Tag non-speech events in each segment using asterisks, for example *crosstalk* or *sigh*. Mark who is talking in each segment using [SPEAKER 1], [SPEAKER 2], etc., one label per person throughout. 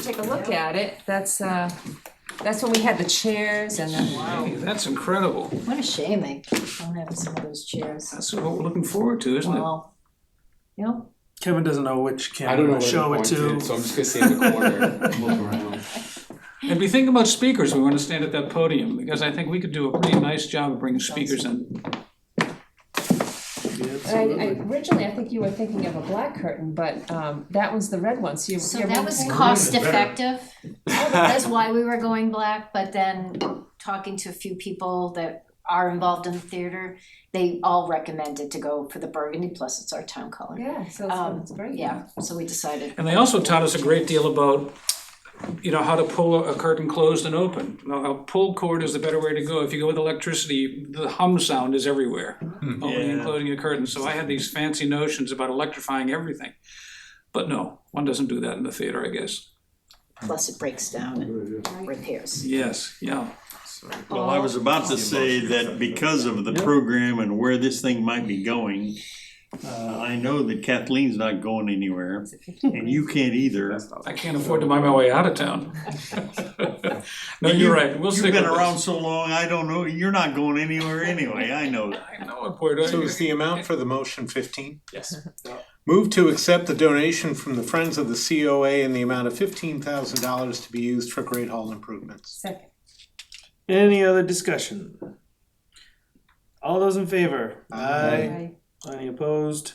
[SPEAKER 1] take a look at it, that's, uh, that's when we had the chairs and the,
[SPEAKER 2] Hey, that's incredible.
[SPEAKER 3] What a shame they don't have some of those chairs.
[SPEAKER 2] That's what we're looking forward to, isn't it?
[SPEAKER 3] Wow. You know,
[SPEAKER 4] Kevin doesn't know which
[SPEAKER 5] I don't know
[SPEAKER 4] camera
[SPEAKER 5] where
[SPEAKER 4] to
[SPEAKER 5] to
[SPEAKER 4] show it to.
[SPEAKER 5] point it, so I'm just gonna stay in the corner and look around.
[SPEAKER 2] And we think about speakers, we want to stand at that podium, because I think we could do a pretty nice job of bringing speakers in.
[SPEAKER 1] and I, I, originally, I think you were thinking of a black curtain, but, um, that was the red one, so you.
[SPEAKER 3] so
[SPEAKER 1] you're
[SPEAKER 3] that was
[SPEAKER 1] maintaining-
[SPEAKER 3] cost effective. That's why we were going black, but then talking to a few people that are involved in the theater, they all recommended to go for the burgundy, plus it's our town color.
[SPEAKER 1] Yeah, so
[SPEAKER 3] Um,
[SPEAKER 1] it's, it's great.
[SPEAKER 3] Yeah, so we decided.
[SPEAKER 2] And they also taught us a great deal about, you know, how to pull a curtain closed and open. Now, A pull cord is the better way to go. If you go with electricity, the hum sound is everywhere, opening and
[SPEAKER 4] Yeah.
[SPEAKER 2] closing a curtain. So I had these fancy notions about electrifying everything. But no, one doesn't do that in the theater, I guess.
[SPEAKER 3] plus it breaks down and repairs.
[SPEAKER 2] Yes, yeah.
[SPEAKER 6] Well, I was about to say that because of the program and where this thing might be going, uh, I know that Kathleen's not going anywhere, and you can't either.
[SPEAKER 2] I can't afford to buy my way out of
[SPEAKER 6] *laughs*
[SPEAKER 2] town. No,
[SPEAKER 6] And
[SPEAKER 2] you're
[SPEAKER 6] you-
[SPEAKER 2] right. We'll
[SPEAKER 6] You've
[SPEAKER 2] stick with
[SPEAKER 6] been
[SPEAKER 2] this.
[SPEAKER 6] around so long, I don't know, you're not going anywhere anyway, I know that.
[SPEAKER 2] I know, Puerto.
[SPEAKER 7] So is the amount for the motion fifteen?
[SPEAKER 5] Yes.
[SPEAKER 7] Move to accept the donation from the Friends of the COA in the amount of fifteen thousand dollars to be used for Great Hall improvements.
[SPEAKER 1] Second.
[SPEAKER 4] Any other discussion? All those in favor?
[SPEAKER 7] Aye.
[SPEAKER 4] Any opposed?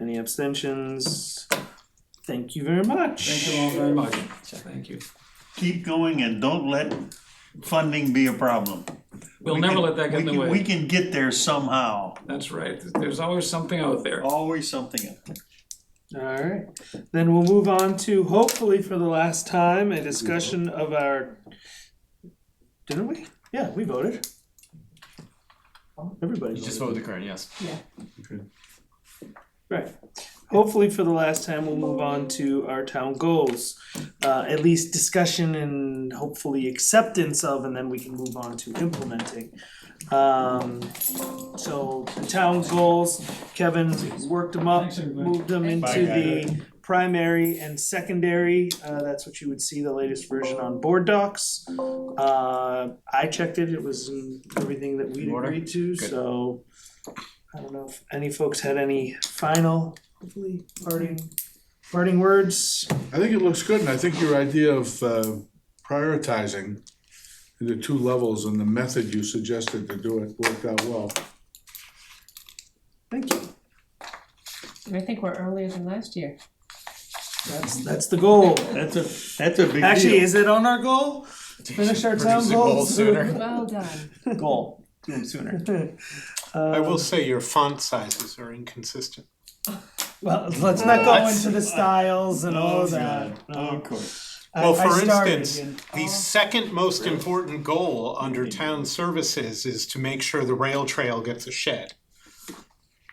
[SPEAKER 4] Any abstentions? Thank you very much.
[SPEAKER 2] Thank you all very much. Thank you.
[SPEAKER 6] Keep going and don't let funding be a problem.
[SPEAKER 2] We'll
[SPEAKER 6] We
[SPEAKER 2] never
[SPEAKER 6] can-
[SPEAKER 2] let that get in
[SPEAKER 6] we
[SPEAKER 2] the
[SPEAKER 6] can- We
[SPEAKER 2] way.
[SPEAKER 6] can get there somehow,
[SPEAKER 2] That's right. There's always something out there.
[SPEAKER 6] always something else.
[SPEAKER 4] All right, then we'll move on to hopefully for the last time a discussion of our. Didn't we? Yeah, we voted. Everybody
[SPEAKER 5] You just
[SPEAKER 4] voted.
[SPEAKER 5] voted the current, yes.
[SPEAKER 4] Right. Hopefully for the last time, we'll move on to our town goals. Uh, at least discussion and hopefully acceptance of, and then we can move on to implementing. Um, so the town goals, Kevin worked them up,
[SPEAKER 2] Thanks, everybody.
[SPEAKER 4] moved them
[SPEAKER 6] Bye,
[SPEAKER 4] into the primary and secondary. Uh, that's what you would see the latest version on board docs. Uh, I checked it, it was in everything that we
[SPEAKER 5] In order?
[SPEAKER 4] agreed to,
[SPEAKER 5] Good.
[SPEAKER 4] so. I don't know if any folks had any final, hopefully parting, parting words.
[SPEAKER 8] I think it looks good, and I think your idea of uh, prioritizing the two levels and the method you suggested to do it worked out well.
[SPEAKER 4] Thank you.
[SPEAKER 1] I think we're earlier than last year.
[SPEAKER 4] That's, that's the goal.
[SPEAKER 6] That's a, that's a big deal.
[SPEAKER 4] Actually, is it on our goal? Finish our town
[SPEAKER 5] Produce a goal
[SPEAKER 4] goals. *laughs*
[SPEAKER 5] sooner.
[SPEAKER 1] Well done.
[SPEAKER 5] Goal, do them sooner.
[SPEAKER 7] I will say your font sizes are inconsistent.
[SPEAKER 4] Well, let's not go
[SPEAKER 6] That's-
[SPEAKER 4] into the styles and all of that.
[SPEAKER 6] Oh, Of course.
[SPEAKER 4] I-
[SPEAKER 7] Well,
[SPEAKER 4] I
[SPEAKER 7] for
[SPEAKER 4] started
[SPEAKER 7] instance,
[SPEAKER 4] and-
[SPEAKER 7] the second most important goal under town services is to make sure the rail trail gets a shed.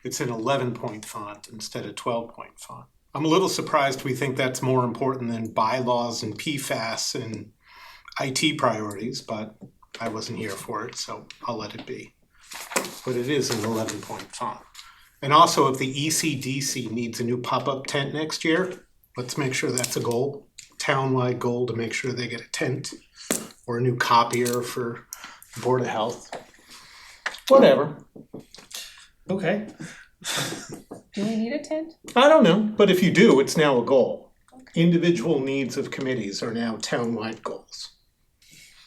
[SPEAKER 7] It's an eleven point font instead of twelve point font. I'm a little surprised we think that's more important than bylaws and PFAS and IT priorities, but I wasn't here for it, so I'll let it be. But it is an eleven point font. And also, if the E ECDC needs a new pop-up tent next year, let's make sure that's a goal townwide goal to make sure they get a tent or a new copier for the Board of Health. Whatever.
[SPEAKER 4] Okay,
[SPEAKER 1] Do we need a tent?
[SPEAKER 7] I don't know, but if you do, it's now a goal. Individual needs of committees are now townwide goals.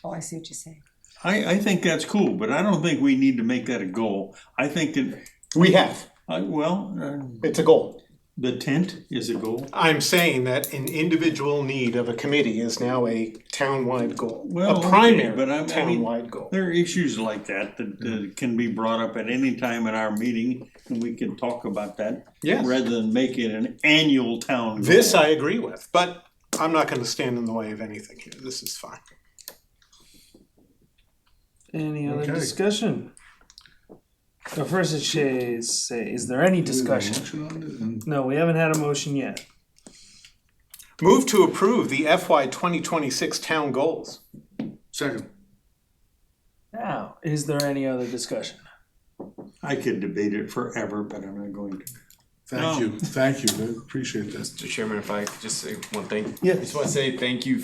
[SPEAKER 1] Oh, I see what you're saying.
[SPEAKER 6] I, I think that's cool, but I don't think we need to make that a goal. I think that,
[SPEAKER 7] We have.
[SPEAKER 6] I, well, uh,
[SPEAKER 7] It's a goal.
[SPEAKER 6] the tent is a goal.
[SPEAKER 7] I'm saying that an individual need of a committee is now a townwide goal.
[SPEAKER 6] Well,
[SPEAKER 7] a
[SPEAKER 6] okay,
[SPEAKER 7] primary
[SPEAKER 6] but I'm- I mean-
[SPEAKER 7] townwide goal.
[SPEAKER 6] There are issues like that that uh, can be brought up at any time in our meeting, and we can talk about that.
[SPEAKER 7] Yes.
[SPEAKER 6] Rather than make it an annual town. goal.
[SPEAKER 7] This I agree with, but I'm not going to stand in the way of anything here. This is fine.
[SPEAKER 4] any other
[SPEAKER 8] Okay.
[SPEAKER 4] discussion? So first it says, say, is there any discussion?
[SPEAKER 8] Motion on it, and-
[SPEAKER 7] Mm-hmm.
[SPEAKER 4] No, we haven't had a motion yet.
[SPEAKER 7] Move to approve the FY 2026 town goals.
[SPEAKER 8] Second,
[SPEAKER 4] Now, is there any other discussion?
[SPEAKER 6] I could debate it forever, but I'm not going to.
[SPEAKER 8] thank you, thank you, I appreciate that.
[SPEAKER 5] Mr. Chairman, if I could just say one thing.
[SPEAKER 4] Yeah.
[SPEAKER 5] I just wanna say thank you